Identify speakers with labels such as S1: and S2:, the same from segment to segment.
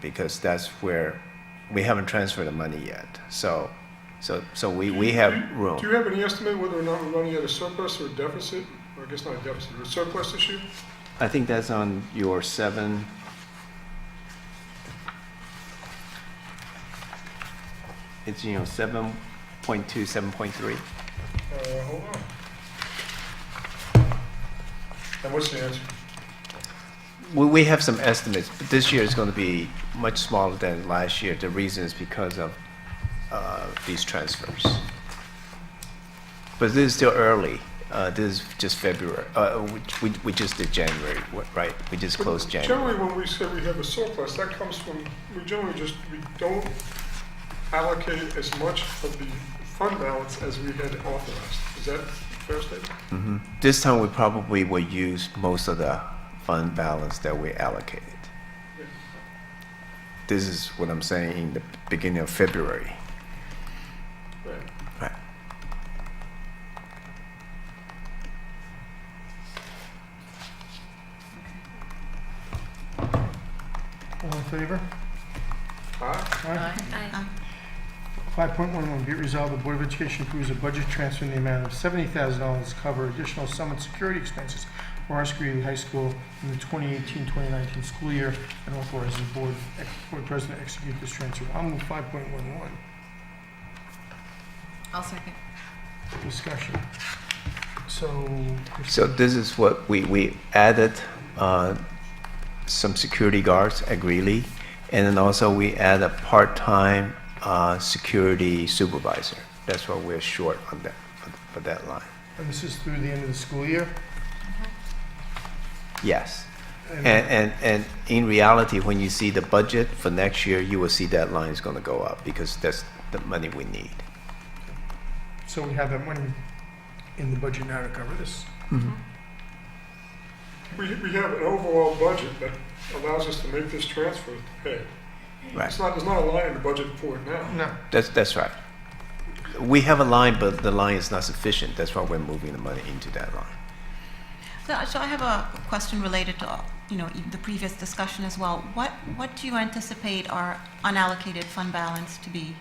S1: because that's where, we haven't transferred the money yet. So, so, so we, we have
S2: Do
S1: room.
S2: you have any estimate whether or not we're running at a surplus or a deficit? Or I guess not a deficit, or a surplus issue?
S1: I think that's on your seven. It's, you know, seven point two, seven point three.
S2: Uh, hold on. And what's the answer?
S1: We, we have some estimates, but this year is going to be much smaller than last year. The reason is because of uh, these transfers. But this is still early. Uh, This is just February. Uh, we- We, we just did January, wh- right? We just closed January.
S2: Generally, when we say we have a surplus, that comes from, we generally just, we don't allocate as much of the fund balance as we had authorized. Is that a fair statement?
S1: This time, we probably will use most of the fund balance that we allocated. This is what I'm saying in the beginning of February.
S2: Right.
S1: Right.
S3: All in favor?
S2: Aye.
S3: Aye.
S4: Aye.
S3: 5.11, be it resolved, the Board of Education approves a budget transfer in the amount of $70,000 to cover additional summit security expenses for Osprey High School in the 2018-2019 school year and authorizes the Board, ex- Board President to execute this transfer. I'll move 5.11.
S4: I'll second.
S3: Discussion. So,
S1: So this is what we, we added, uh, some security guards at Greeley, and then also we add a part-time, uh, security supervisor. That's why we're short on that, for- for that line.
S3: and this is through the end of the school year?
S1: Yes.
S3: And-
S1: And, and, and in reality, when you see the budget for next year, you will see that line is gonna go up, because that's the money we need.
S3: So we have that money in the budget now to cover this.
S2: We, we have an overall budget that allows us to make this transfer to pay.
S1: Right,
S2: It's not, there's not a line in the budget for it now.
S3: No.
S1: that's, that's right. We have a line, but the line is not sufficient, that's why we're moving the money into that line.
S4: So so I have a question related to, you know, e, the previous discussion as well. What, what do you anticipate our unallocated fund balance to be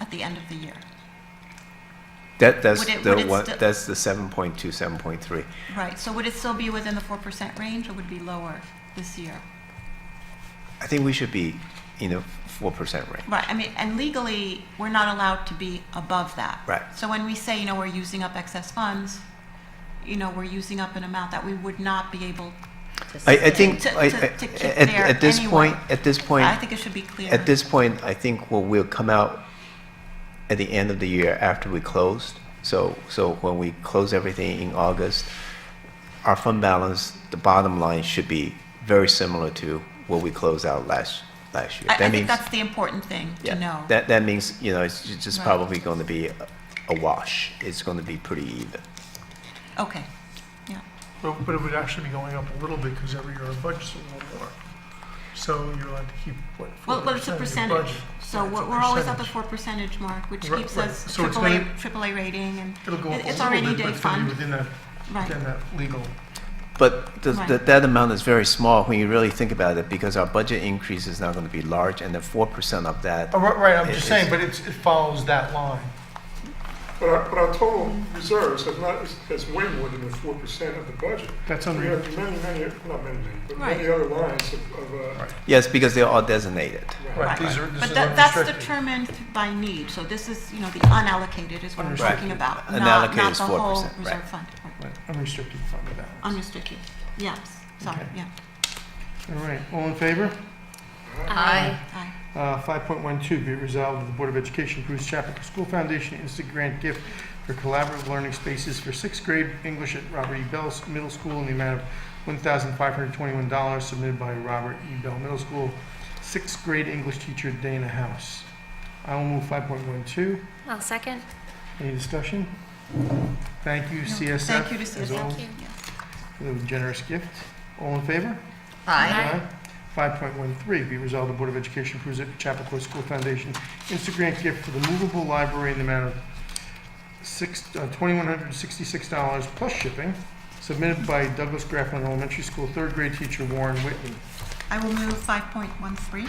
S4: at the end of the year?
S1: That, that's
S4: Would it-
S1: the
S4: would it
S1: one,
S4: still-
S1: that's the seven point two, seven point three.
S4: Right, so would it still be within the 4% range or would it be lower this year?
S1: I think we should be in the four percent range.
S4: Right, I mean, and legally, we're not allowed to be above that.
S1: Right.
S4: So when we say, you know, we're using up excess funds, you know, we're using up an amount that we would not be able,
S1: I, I think,
S4: To-
S1: I- I-
S4: to- to keep
S1: at,
S4: there
S1: at this
S4: anyway.
S1: point, at this point,
S4: I think it should be clear.
S1: at this point, I think what will come out at the end of the year after we closed, so, so when we close everything in August, our fund balance, the bottom line should be very similar to what we closed out last, last year.
S4: I
S1: That
S4: I think
S1: means-
S4: that's the important thing
S1: Yeah,
S4: to know.
S1: That, that means, you know, it's ju- just
S4: Right.
S1: probably gonna be a- a wash. It's gonna be pretty even.
S4: Okay, yeah.
S3: But but it would actually be going up a little bit because every year our budget's a little more. So you're allowed to keep, what,
S4: Well, well, it's
S3: 4% of
S4: a
S3: your
S4: percentage,
S3: budget.
S4: so
S3: Right, it's a
S4: we're, we're always at the
S3: percentage.
S4: four percentage mark, which
S3: Right,
S4: keeps
S3: right.
S4: us
S3: So it's
S4: AAA,
S3: gonna-
S4: AAA rating and,
S3: It'll go up a
S4: it's
S3: little
S4: our
S3: bit,
S4: 80-day
S3: but it's gonna
S4: fund.
S3: be within that, within
S4: right,
S3: that legal.
S1: But the, the,
S4: Right.
S1: that amount is very small when you really think about it, because our budget increase is not gonna be large, and the four percent of that,
S3: Oh, Right, right, I'm
S1: It-
S3: just
S1: it's-
S3: saying, but it's, it follows that line.
S2: But our, but our total reserves have not, is- is way more than the four percent of the budget.
S3: That's
S2: We
S3: under,
S2: have many, many, not many, many, but many
S4: Right.
S2: other lines of, of, uh,
S1: yes, because they're all designated.
S3: right,
S4: Right.
S3: these are, this
S4: but
S3: is
S4: that, that's
S3: unrestricted.
S4: determined by need, so this is, you know, the unallocated is what I'm
S3: Unrestricted.
S4: talking about,
S1: Right.
S4: not,
S1: Unallocated
S4: not
S1: is
S4: the whole
S1: 4%, right.
S4: reserve fund. Right.
S3: Right, Unrestricted fund balance.
S4: Unrestricted, yes, sorry,
S3: Okay.
S4: yeah,
S3: All right, all in favor?
S5: Aye.
S4: aye,
S3: Uh, 5.12, be it resolved that the Board of Education approves Chapel School Foundation Instant Grant Gift for Collaborative Learning Spaces for sixth grade English at Robert E. Bell Middle School in the amount of $1,521 submitted by Robert E. Bell Middle School, sixth grade English teacher Dana House. I will move 5.12.
S5: I'll second.
S3: Any discussion? Thank you,
S4: No,
S3: CSF.
S4: thank you to
S3: as
S4: CSF.
S3: always,
S5: you.
S4: yeah.
S3: For the generous gift. All in favor?
S5: Aye.
S3: Five point one three, be resolved, the Board of Education approves the Chappaqua School Foundation Insta Grant gift for the movable library in the amount of six, uh, twenty-one hundred and sixty-six dollars plus shipping, submitted by Douglas Grafflin Elementary School third grade teacher Warren Whitney.
S4: I will move five point one three,